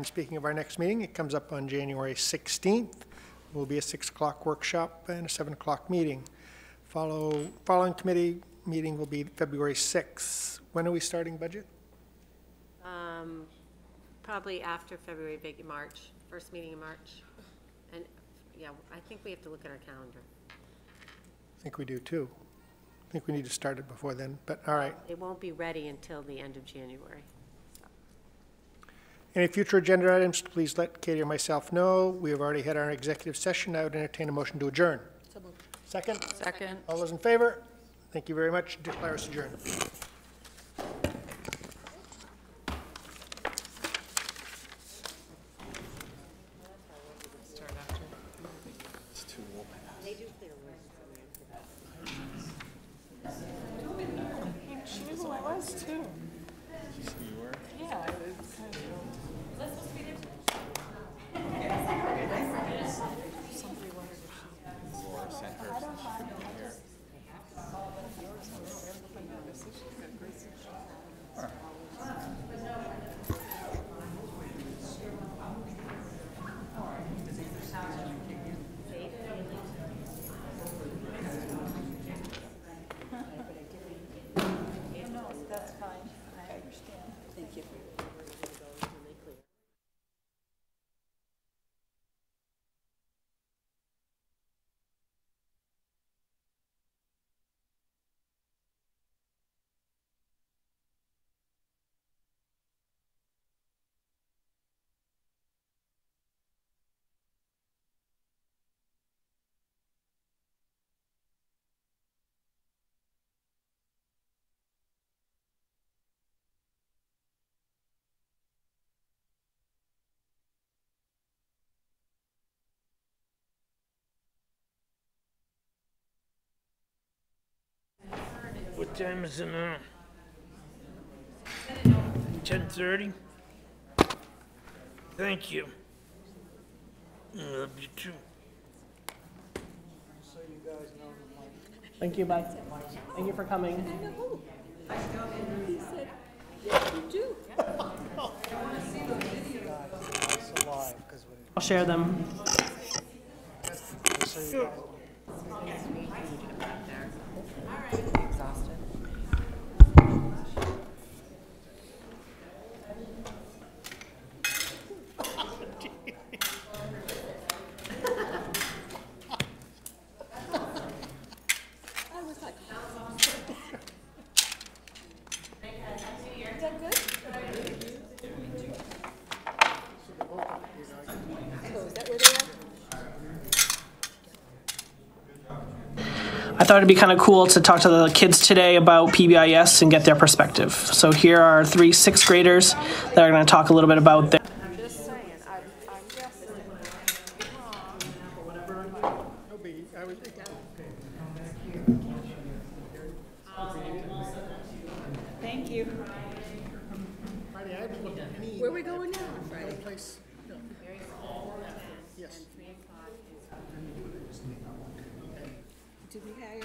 And Speaking of our next meeting, it comes up on January 16th. It Will be a 6 o'clock workshop and a 7 o'clock meeting. Follow, following committee meeting will be February 6th. When are we starting budget? Um, Probably after February, big, March, first meeting in March. And, yeah, I think we have to look at our calendar. I think we do too. I think we need to start it before then, but all right. It won't be ready until the end of January. Any future agenda items, please let Katie or myself know. We have already had our executive session. I would entertain a motion to adjourn. Second? Second. All those in favor? Thank you very much. Declare us adjourned. She knew who I was too. She knew you were? Yeah, it was kind of. What time is it now? Ten thirty? Thank you. I love you too. Thank you, bye. Thank you for coming. I'll share them. I thought it'd be kind of cool to talk to the kids today about PBIS and get their perspective. So here are three sixth graders that are going to talk a little bit about their. Just saying, I, I'm guessing. Thank you. Where we going now on Friday? Place, no. Yes. Did we hire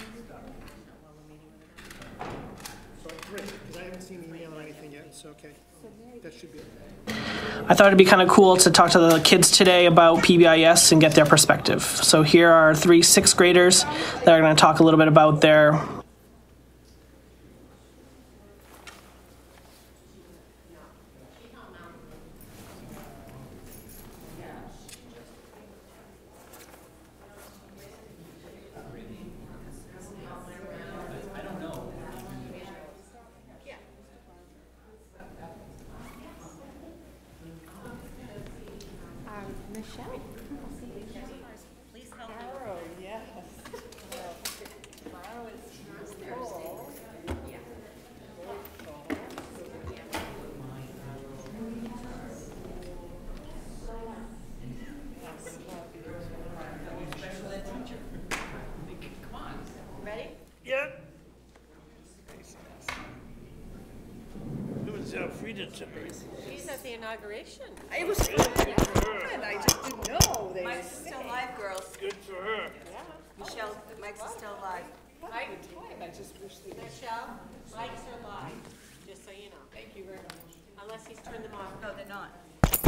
So three, because I haven't seen an email or anything yet, so, okay. That should be. it. I thought it'd be kind of cool to talk to the kids today about PBIS and get their perspective. So here are three sixth graders that are going to talk a little bit about their. Michelle. Please help me. Arrow, yes. Arrow is full. Yeah. It was Alfreda tonight. She's at the inauguration. It was, Good for her. I just didn't know. They Mike's is still live, girls. Good for her. Michelle, Mike's is still live. Mike, Michelle, Mike's are live, just so you know. Thank you very much. Unless he's turned them off. No, they're not.